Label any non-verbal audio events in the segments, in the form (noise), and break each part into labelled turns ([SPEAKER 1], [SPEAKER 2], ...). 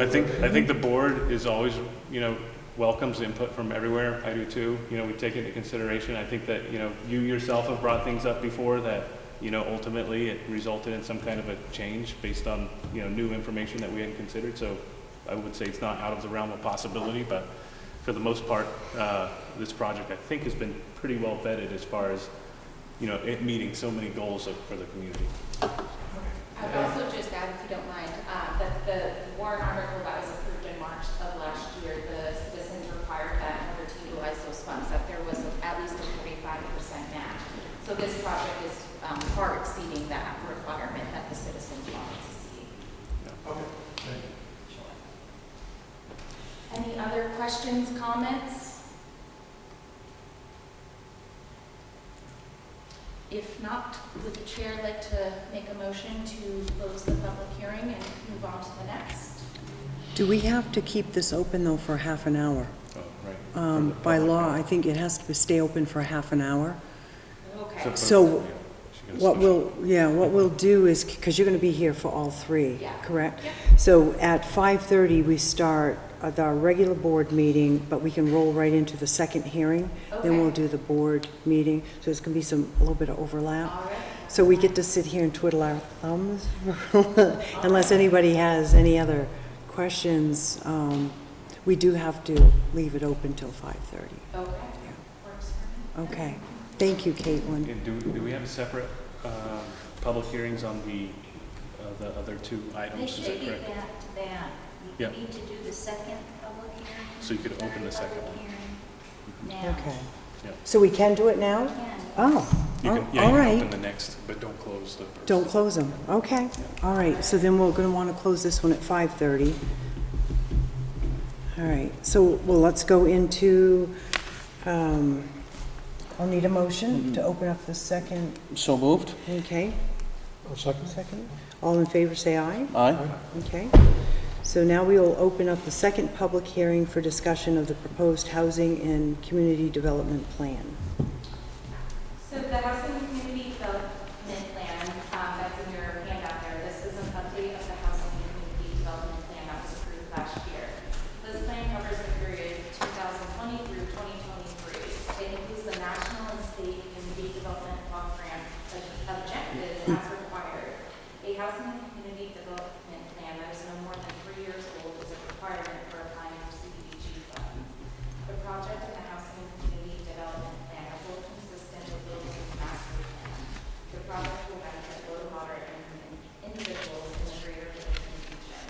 [SPEAKER 1] I think, I think the board is always, you know, welcomes input from everywhere, I do too, you know, we take into consideration, I think that, you know, you yourself have brought things up before that, you know, ultimately it resulted in some kind of a change based on, you know, new information that we hadn't considered, so I would say it's not out of the realm of possibility, but for the most part, uh, this project, I think, has been pretty well vetted as far as, you know, it meeting so many goals of- for the community.
[SPEAKER 2] I would also just add, if you don't mind, uh, that the warrant article that was approved in March of last year, the citizens required that in order to utilize those funds, that there was at least a forty-five percent match. So this project is um, far exceeding that requirement that the citizens wanted to see.
[SPEAKER 3] Okay.
[SPEAKER 2] Sure. Any other questions, comments? If not, would the chair like to make a motion to close the public hearing and move on to the next?
[SPEAKER 4] Do we have to keep this open, though, for half an hour?
[SPEAKER 1] Oh, right.
[SPEAKER 4] Um, By law, I think it has to stay open for half an hour.
[SPEAKER 2] Okay,
[SPEAKER 4] So
[SPEAKER 1] She got a
[SPEAKER 4] What
[SPEAKER 1] special-
[SPEAKER 4] we'll, yeah, what we'll do is, because you're going to be here for all three,
[SPEAKER 2] Yeah.
[SPEAKER 4] correct? So at 5:30, we start with our regular board meeting, but we can roll right into the second hearing. Then we'll
[SPEAKER 2] Okay.
[SPEAKER 4] do the board meeting, so it's going to be some, a little bit of overlap.
[SPEAKER 2] all right.
[SPEAKER 4] So we get to sit here and twiddle our thumbs, (laughs) unless anybody has any other questions. um, We do have to leave it open till 5:30.
[SPEAKER 2] Okay, works for me.
[SPEAKER 4] Okay, thank you, Caitlin.
[SPEAKER 1] And do, do we have separate, um, public hearings on the, uh, the other two
[SPEAKER 5] They
[SPEAKER 1] items, is
[SPEAKER 5] should
[SPEAKER 1] that
[SPEAKER 5] be
[SPEAKER 1] correct?
[SPEAKER 5] back to back.
[SPEAKER 1] Yeah.
[SPEAKER 5] You need to do the second public hearing.
[SPEAKER 1] So you could open
[SPEAKER 5] third
[SPEAKER 1] the second
[SPEAKER 5] public
[SPEAKER 1] one.
[SPEAKER 5] hearing Now.
[SPEAKER 4] Okay.
[SPEAKER 1] Yeah.
[SPEAKER 4] So we can do it
[SPEAKER 1] Mm-hmm.
[SPEAKER 4] now?
[SPEAKER 5] Again,
[SPEAKER 1] You can-
[SPEAKER 4] Oh, all
[SPEAKER 1] Yeah, you can open
[SPEAKER 4] right.
[SPEAKER 1] the next, but don't close the. first.
[SPEAKER 4] Don't close them, okay. All right, so then we're going to want to close this one at 5:30. All right, so, well, let's go into, um, I'll need a motion
[SPEAKER 3] Mm-hmm.
[SPEAKER 4] to open up the second
[SPEAKER 6] So moved.
[SPEAKER 4] Okay,
[SPEAKER 3] I'll second.
[SPEAKER 4] second. All in favor, say aye.
[SPEAKER 6] Aye.
[SPEAKER 4] Okay. So now we will open up the second public hearing for discussion of the proposed housing and community development plan.
[SPEAKER 2] So the Housing and Community Development Plan, um, that's in your handout there, this is an update of the Housing and Community Development Plan that was approved last year. This plan covers the period 2020 through 2023. It includes the national and state community development program objectives as required. A Housing and Community Development Plan that is no more than three years old is a requirement for applying for CDBG funds. The project and the housing and community development plan are both consistent with Littleton's master plan. The project will benefit low to moderate income individuals in the greater Littleton region.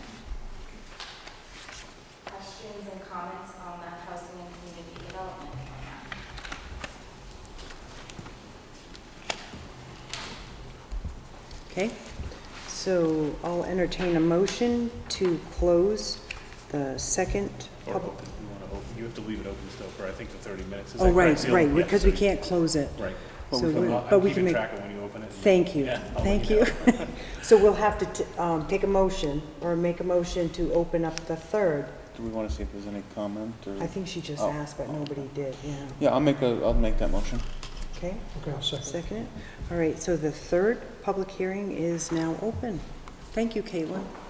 [SPEAKER 2] Questions and comments on the housing and community development plan?
[SPEAKER 4] Okay? So I'll entertain a motion to close the second
[SPEAKER 1] Or
[SPEAKER 4] public.
[SPEAKER 1] open, you wanna open, you have to leave it open still for, I think, the thirty minutes. Is
[SPEAKER 4] Oh,
[SPEAKER 1] that correct?
[SPEAKER 4] right,
[SPEAKER 1] Seal-
[SPEAKER 4] right,
[SPEAKER 1] yeah,
[SPEAKER 4] because we
[SPEAKER 1] 30.
[SPEAKER 4] can't close it.
[SPEAKER 1] Right.
[SPEAKER 4] So we-
[SPEAKER 1] Well, I'm
[SPEAKER 4] But we
[SPEAKER 1] keeping
[SPEAKER 4] can make,
[SPEAKER 1] track of when you open it. and-
[SPEAKER 4] thank you,
[SPEAKER 1] Yeah, I'll let
[SPEAKER 4] thank
[SPEAKER 1] know.
[SPEAKER 4] you. So we'll have to t- um, take a motion, or make a motion to open up the third.
[SPEAKER 6] Do we want to see if there's any comment
[SPEAKER 4] I
[SPEAKER 1] Mm.
[SPEAKER 6] or?
[SPEAKER 4] think she just
[SPEAKER 6] Oh,
[SPEAKER 4] asked, but
[SPEAKER 6] oh,
[SPEAKER 4] nobody did, yeah.
[SPEAKER 6] Yeah, I'll make a, I'll make that motion.
[SPEAKER 4] Okay?
[SPEAKER 3] Okay, I'll second.
[SPEAKER 4] Second it. All right, so the third public hearing is now open. Thank you, Caitlin.
[SPEAKER 2] Uh, um,